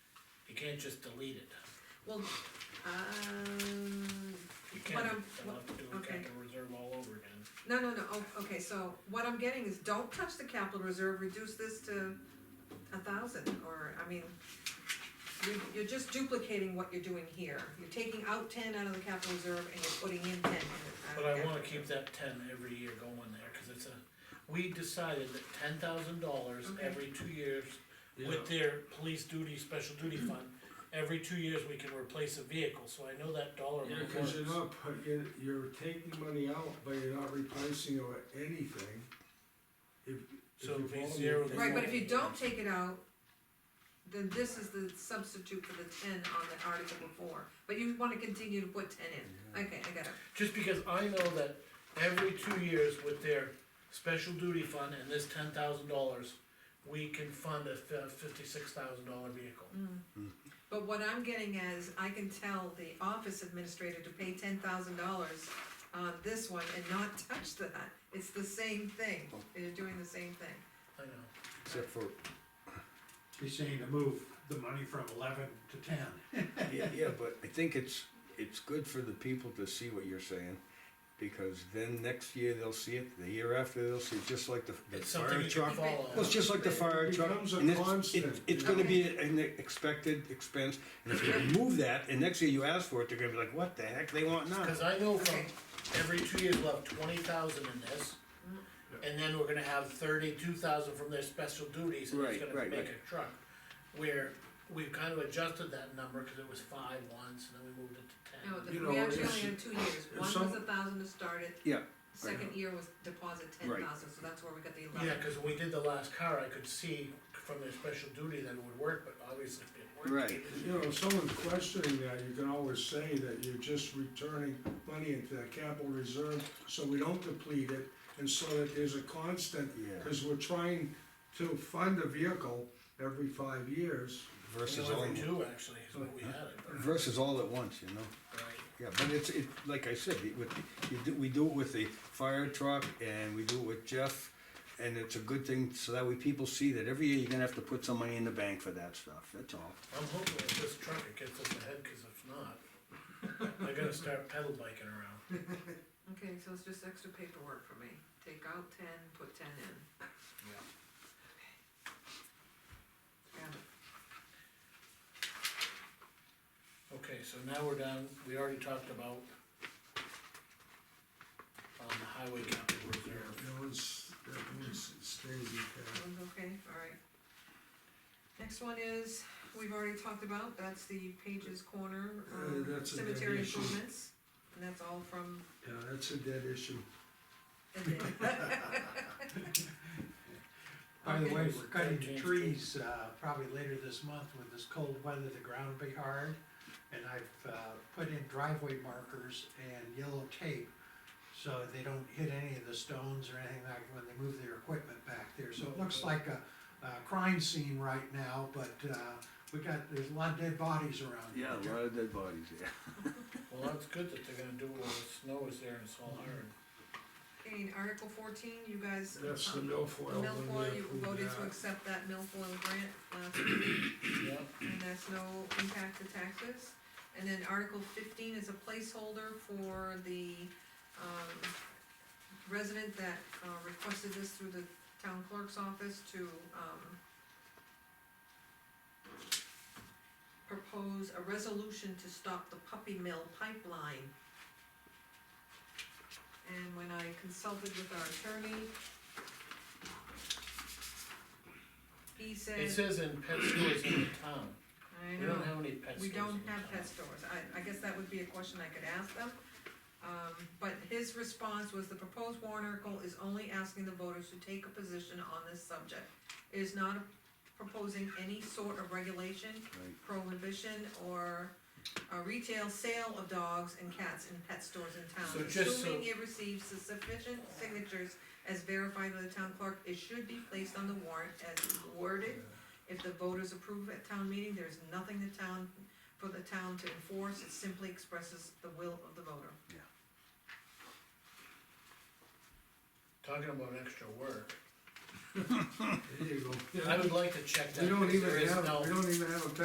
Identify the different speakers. Speaker 1: can't just delete it.
Speaker 2: Well, um,
Speaker 1: You
Speaker 2: What
Speaker 1: can't,
Speaker 2: I'm-
Speaker 1: I'll have to do a
Speaker 2: okay.
Speaker 1: capital reserve all over again.
Speaker 2: no, no, no, oh, okay, so what I'm getting is don't touch the capital reserve, reduce this to a thousand, or, I mean, you're, you're just duplicating what you're doing here, you're taking out ten out of the capital reserve and you're putting in ten. out of
Speaker 1: But I
Speaker 2: the
Speaker 1: wanna
Speaker 2: capital
Speaker 1: keep
Speaker 2: reserve.
Speaker 1: that ten every year going there, cause it's a, we decided that ten thousand dollars
Speaker 2: Okay.
Speaker 1: every two years
Speaker 3: Yeah.
Speaker 1: with their police duty, special duty
Speaker 2: Mm-hmm.
Speaker 1: fund, every two years we can replace a vehicle, so I know that dollar
Speaker 3: Yeah,
Speaker 1: amount
Speaker 4: Because you're
Speaker 1: works.
Speaker 4: not, put- you're, you're taking money out, but you're not replacing or anything. If, if
Speaker 1: So
Speaker 4: you
Speaker 1: it'd be
Speaker 4: follow me,
Speaker 1: zero that-
Speaker 4: then-
Speaker 2: Right, but if you don't take it out, then this is the substitute for the ten on the article before, but you wanna continue to put ten in, okay, I got it,
Speaker 1: Just because I know that every two years with their special duty fund and this ten thousand dollars, we can fund a fifty-six thousand dollar vehicle.
Speaker 2: but what I'm getting at is, I can tell the office administrator to pay ten thousand dollars on this one and not touch that, it's the same thing, they're doing the same thing.
Speaker 1: I know,
Speaker 5: Except for,
Speaker 6: He's saying to move the money from eleven to ten.
Speaker 5: yeah, yeah, but I think it's, it's good for the people to see what you're saying. Because then next year they'll see it, the year after they'll see it, just like the, the
Speaker 1: it's something
Speaker 5: fire
Speaker 1: you can
Speaker 5: truck.
Speaker 1: follow.
Speaker 5: Well, it's just like the fire
Speaker 4: It
Speaker 5: truck.
Speaker 4: becomes a
Speaker 5: and it's-
Speaker 4: constant,
Speaker 5: it's- It's
Speaker 4: you
Speaker 5: gonna be an expected expense, and if you remove that, and next year you ask for it, they're gonna be like, what the heck, they want now?
Speaker 1: Cause I know from every two years we'll have twenty thousand in this, and then we're gonna have thirty-two thousand from their special duties, and it's
Speaker 5: Right,
Speaker 1: gonna
Speaker 5: right,
Speaker 1: make
Speaker 5: right.
Speaker 1: a truck. Where we've kind of adjusted that number, cause it was five once, and then we moved
Speaker 2: No,
Speaker 1: it to ten.
Speaker 2: Oh, the-
Speaker 4: You
Speaker 2: we
Speaker 4: know,
Speaker 2: actually
Speaker 4: it's-
Speaker 2: only had two years,
Speaker 4: if
Speaker 2: one was
Speaker 4: some-
Speaker 2: a thousand to start it,
Speaker 5: Yeah,
Speaker 2: second year was deposit ten
Speaker 5: Right.
Speaker 2: thousand, so that's where we got the eleven.
Speaker 1: Yeah, cause when we did the last car, I could see from their special duty that it would work, but obviously it didn't work.
Speaker 5: right,
Speaker 4: You know, if someone's questioning that, you can always say that you're just returning money into the capital reserve, so we don't deplete it, and so that there's a constant,
Speaker 5: Yeah.
Speaker 4: cause we're trying to fund a vehicle every five years.
Speaker 5: versus
Speaker 1: Well,
Speaker 5: all,
Speaker 1: every two actually, is what we had it, but-
Speaker 5: versus all at once, you know?
Speaker 1: right?
Speaker 5: Yeah, but it's, it, like I said, it, with, you do, we do it with the fire truck and we do it with Jeff. And it's a good thing, so that way people see that every year you're gonna have to put some money in the bank for that stuff, that's all.
Speaker 1: I'm hoping with this truck it gets us ahead, cause if not, I gotta start pedal biking around.
Speaker 2: Okay, so it's just extra paperwork for me. Take out ten, put ten in.
Speaker 1: Yeah.
Speaker 2: Got it.
Speaker 1: Okay, so now we're done, we already talked about um, the highway capital
Speaker 4: Yeah,
Speaker 1: reserve.
Speaker 4: that one's, that one's, stays in cash.
Speaker 2: That one's okay, alright. Next one is, we've already talked about, that's the Page's Corner,
Speaker 4: Uh,
Speaker 2: um,
Speaker 4: that's a
Speaker 2: cemetery
Speaker 4: donation.
Speaker 2: improvements. And that's all from
Speaker 4: Yeah, that's a dead issue.
Speaker 2: the day.
Speaker 6: By the way,
Speaker 2: Okay.
Speaker 6: we're cutting trees, uh, probably later this month with this cold weather, the ground will be hard. And I've, uh, put in driveway markers and yellow tape, so they don't hit any of the stones or anything like when they move their equipment back there. So it looks like a, a crime scene right now, but, uh, we got, there's a lot of dead bodies around. here.
Speaker 5: of dead bodies, yeah.
Speaker 1: Well, that's good that they're gonna do it while the snow is there and it's all hard.
Speaker 2: Okay, and Article fourteen, you guys.
Speaker 4: That's the
Speaker 2: um,
Speaker 4: milfoil one
Speaker 2: Milfoil,
Speaker 4: we
Speaker 2: you
Speaker 4: approved
Speaker 2: voted to
Speaker 4: that.
Speaker 2: accept that milfoil grant uh, last week.
Speaker 1: Yeah,
Speaker 2: and that's no impact to taxes. And then Article fifteen is a placeholder for the, um, resident that uh, requested this through the town clerk's office to, um, propose a resolution to stop the puppy mill pipeline. And when I consulted with our attorney, he said.
Speaker 1: it says in pet stores in the town,
Speaker 2: I
Speaker 1: we
Speaker 2: know.
Speaker 1: don't have any pet stores
Speaker 2: We
Speaker 1: in the town.
Speaker 2: don't have pet stores, I, I guess that would be a question I could ask them. Um, but his response was the proposed warrant article is only asking the voters to take a position on this subject. It is not proposing any sort of regulation,
Speaker 5: Right.
Speaker 2: prohibition, or a retail sale of dogs and cats in pet stores in town.
Speaker 1: So just so-
Speaker 2: Assuming it receives the sufficient signatures as verified by the town clerk, it should be placed on the warrant as worded. If the voters approve at town meeting, there's nothing the town, for the town to enforce, it simply expresses the will of the voter.
Speaker 1: Talking about extra work,
Speaker 4: There you go.
Speaker 1: I would like to check that.
Speaker 4: We don't
Speaker 1: because
Speaker 4: even
Speaker 1: there is
Speaker 4: have,
Speaker 1: no-
Speaker 4: we don't even have a